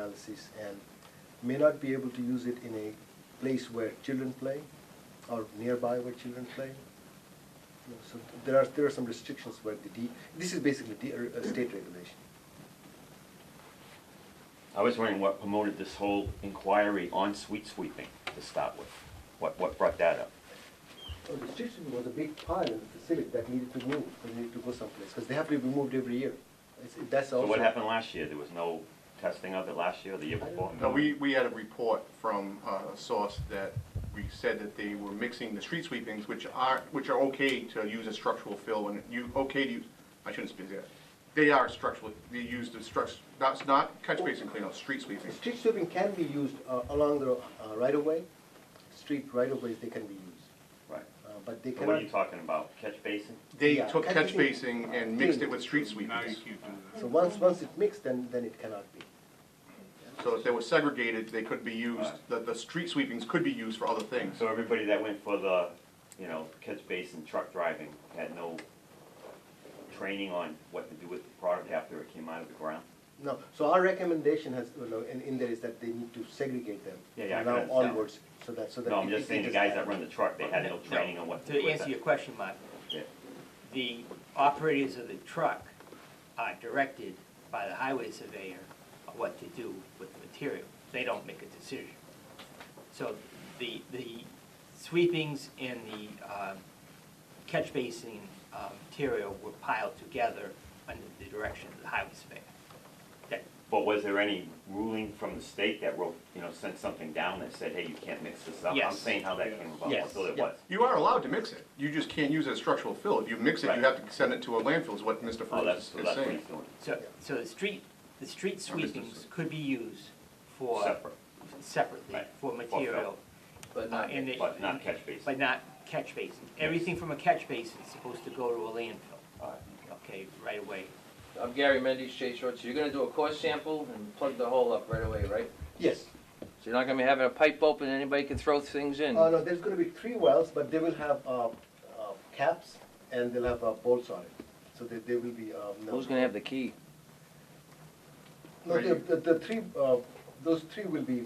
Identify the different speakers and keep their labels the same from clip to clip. Speaker 1: analysis and may not be able to use it in a place where children play or nearby where children play. You know, So there are, there are some restrictions where the D, this is basically D, uh, state regulation.
Speaker 2: I was wondering what promoted this whole inquiry on sweet sweeping to start with? What, what brought that up?
Speaker 1: Well, the restriction was a big pile in the facility that needed to move, that needed to go someplace, because they have to be moved every year. It's, it- that's
Speaker 2: So
Speaker 1: also.
Speaker 2: what happened last year? There was no testing of it last year or the year before?
Speaker 3: No, we, we had a report from uh, a source that we said that they were mixing the street sweepings, which are, which are okay to use as structural fill, and you, okay to use, I shouldn't speak that. They are structural, they use the struct, that's not catch basin cleanout, street sweeping.
Speaker 1: Street sweeping can be used uh, along the uh, right-of-way, street right-of-ways, they can be used,
Speaker 2: Right.
Speaker 1: Uh, but they
Speaker 2: So what are
Speaker 1: cannot,
Speaker 2: you talking about? Catch basin?
Speaker 3: They
Speaker 1: Yeah,
Speaker 3: took
Speaker 1: catch
Speaker 3: catch
Speaker 1: basin-
Speaker 3: basin and mixed it with street
Speaker 4: Now you
Speaker 3: sweepings.
Speaker 4: can't do that.
Speaker 1: so once, once it mixed, then, then it cannot be.
Speaker 3: So if they were segregated, they could be used, the, the street sweepings could be used for other things.
Speaker 2: So everybody that went for the, you know, catch basin truck driving had no training on what to do with the product after it came out of the ground?
Speaker 1: No, so our recommendation has, you know, in, in there is that they need to segregate them
Speaker 2: Yeah, yeah,
Speaker 1: from
Speaker 2: I can
Speaker 1: now
Speaker 2: understand.
Speaker 1: onwards, so that, so that.
Speaker 2: No, I'm
Speaker 1: it-
Speaker 2: just
Speaker 1: it-
Speaker 2: saying
Speaker 1: it
Speaker 2: the
Speaker 1: is
Speaker 2: guys
Speaker 1: bad.
Speaker 2: that run the truck, they had no training on what to do
Speaker 5: To
Speaker 2: with
Speaker 5: answer your
Speaker 2: it.
Speaker 5: question, Mark,
Speaker 2: Yeah.
Speaker 5: the operators of the truck are directed by the highway surveyor on what to do with the material. They don't make a decision. So the, the sweepings and the um, catch basin uh, material were piled together under the direction of the highway surveyor. That,
Speaker 2: But was there any ruling from the state that wrote, you know, sent something down that said, hey, you can't mix this up? I'm
Speaker 5: Yes.
Speaker 2: saying how that came about,
Speaker 5: Yes.
Speaker 2: so there
Speaker 1: Yeah.
Speaker 2: was.
Speaker 3: You are allowed to mix it, you just can't use it as structural fill. If you mix it, you
Speaker 2: Right.
Speaker 3: have to send it to a landfill, is what Mr.
Speaker 2: Oh,
Speaker 3: Ferguson
Speaker 2: that's,
Speaker 3: is
Speaker 2: so
Speaker 3: saying.
Speaker 2: that's what he's doing,
Speaker 5: so, so the street, the street
Speaker 3: Or business
Speaker 5: sweepings could be used for.
Speaker 2: separate,
Speaker 5: Separately,
Speaker 2: Right.
Speaker 5: for
Speaker 2: For
Speaker 5: material. But not.
Speaker 2: but not catch basin.
Speaker 5: But not catch basin. Everything from a catch basin is supposed to go to a landfill,
Speaker 2: All right.
Speaker 5: okay, right away.
Speaker 6: I'm Gary Mendes, Shea Short, so you're gonna do a core sample and plug the hole up right away, right?
Speaker 1: Yes,
Speaker 6: So you're not gonna be having a pipe open, and anybody can throw things in?
Speaker 3: Oh,
Speaker 1: uh, no, there's gonna be three wells, but they will have, uh, uh, caps and they'll have uh, bolts on it, so that they will be, um. no-
Speaker 6: Who's gonna have the key?
Speaker 1: No, the, the, the three, uh, those three will be,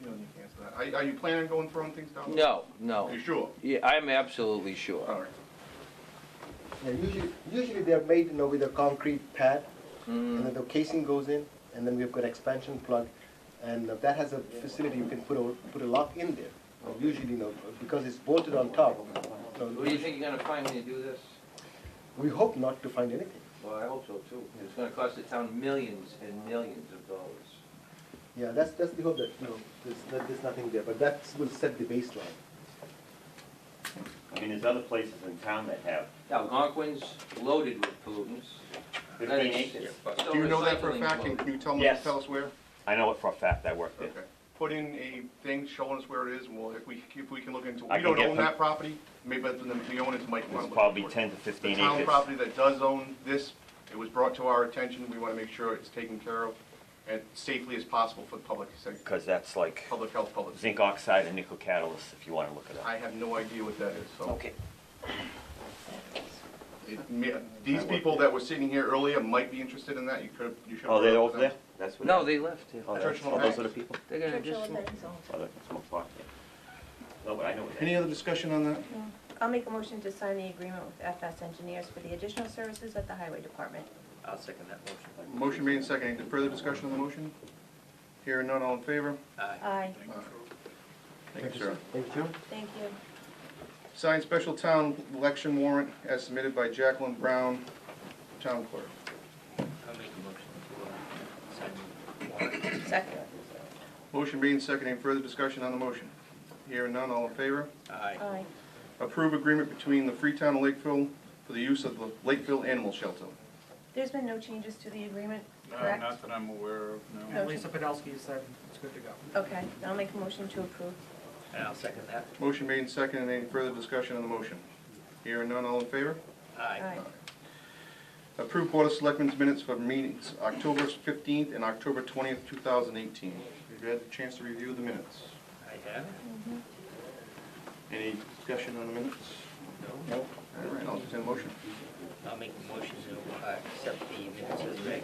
Speaker 3: You don't need to answer that. Are, are you planning on going throwing things down?
Speaker 6: No, no.
Speaker 3: You sure?
Speaker 6: Yeah, I'm absolutely sure.
Speaker 3: All right.
Speaker 1: yeah, usually, usually they're made, you know, with a concrete pad,
Speaker 6: Mm.
Speaker 1: and then the casing goes in, and then we've got expansion plug, and uh, that has a facility, you can put a, put a lock in there. Uh, Usually, you know, because it's bolted on top, you know,
Speaker 6: Who do you think you're gonna find when you do this?
Speaker 1: we hope not to find anything.
Speaker 6: Well, I hope so too. It's gonna cost the town millions and millions of dollars.
Speaker 1: Yeah, that's, that's the hope that, you know, there's, that there's nothing there, but that will set the baseline.
Speaker 2: I mean, there's other places in town that have
Speaker 6: Algonquin's loaded with pollutants.
Speaker 2: fifteen acres.
Speaker 3: Do you know that for a fact, and can you tell me,
Speaker 2: Yes.
Speaker 3: tell us where?
Speaker 2: I know it for a fact, I worked there.
Speaker 3: Okay. Put in a thing showing us where it is, and well, if we, if we can look into,
Speaker 2: I
Speaker 3: we
Speaker 2: can
Speaker 3: don't
Speaker 2: get
Speaker 3: own
Speaker 2: from-
Speaker 3: that property, maybe that's the, the owners might want to
Speaker 2: It's
Speaker 3: look.
Speaker 2: probably
Speaker 3: for it.
Speaker 2: ten to fifteen
Speaker 3: The town
Speaker 2: acres.
Speaker 3: property that does own this, it was brought to our attention, we want to make sure it's taken care of, and safely as possible for the public, sa-
Speaker 2: Because that's like
Speaker 3: public health, public.
Speaker 2: zinc oxide and nickel catalyst, if you want to look it up.
Speaker 3: I have no idea what that is, so.
Speaker 2: Okay.
Speaker 3: it may- These people that were sitting here earlier might be interested in that, you could, you should.
Speaker 2: Oh, they're over there? That's what.
Speaker 6: No, they left.
Speaker 2: Oh, that's-
Speaker 3: Churchill
Speaker 2: oh, those are the
Speaker 3: Downs.
Speaker 2: people?
Speaker 6: They're gonna
Speaker 7: Churchill
Speaker 6: just,
Speaker 7: and Ben's own.
Speaker 2: Oh, that's my fault, yeah. No, but I know what that
Speaker 3: Any
Speaker 2: is.
Speaker 3: other discussion on that?
Speaker 7: I'll make a motion to sign the agreement with FS Engineers for the additional services at the Highway Department.
Speaker 5: I'll second that motion.
Speaker 3: Motion made and seconded. Any further discussion on the motion? Hearing none, all in favor?
Speaker 5: Aye.
Speaker 7: Aye,
Speaker 3: Thank you, sir.
Speaker 1: Thank you.
Speaker 7: thank you.
Speaker 3: Signed special town election warrant as submitted by Jacqueline Brown, town clerk.
Speaker 5: I'll make the uh, motion
Speaker 7: Second.
Speaker 3: Motion made and seconded. Any further discussion on the motion? Hearing none, all in favor?
Speaker 5: to, uh, Aye.
Speaker 7: Aye.
Speaker 3: Approve agreement between the Freetown and Lakeville for the use of the Lakeville Animal Shelter.
Speaker 7: There's been no changes to the agreement,
Speaker 4: No,
Speaker 7: correct?
Speaker 4: not that I'm aware of,
Speaker 7: No.
Speaker 4: no.
Speaker 7: Lisa
Speaker 8: Podolsky said it's good to go.
Speaker 7: Okay, I'll make a motion to approve.
Speaker 5: And I'll second that.
Speaker 3: Motion made and seconded. Any further discussion on the motion? Hearing none, all in favor?
Speaker 5: Aye.
Speaker 7: Aye.
Speaker 3: Approve Board of Selectmen's minutes for meetings October 15th and October 20th, 2018. Have you had a chance to review the minutes?
Speaker 5: I have.
Speaker 3: Any discussion on the minutes? No. All right, I'll entertain a motion.
Speaker 5: I'll make the motion to uh, accept the minutes as read.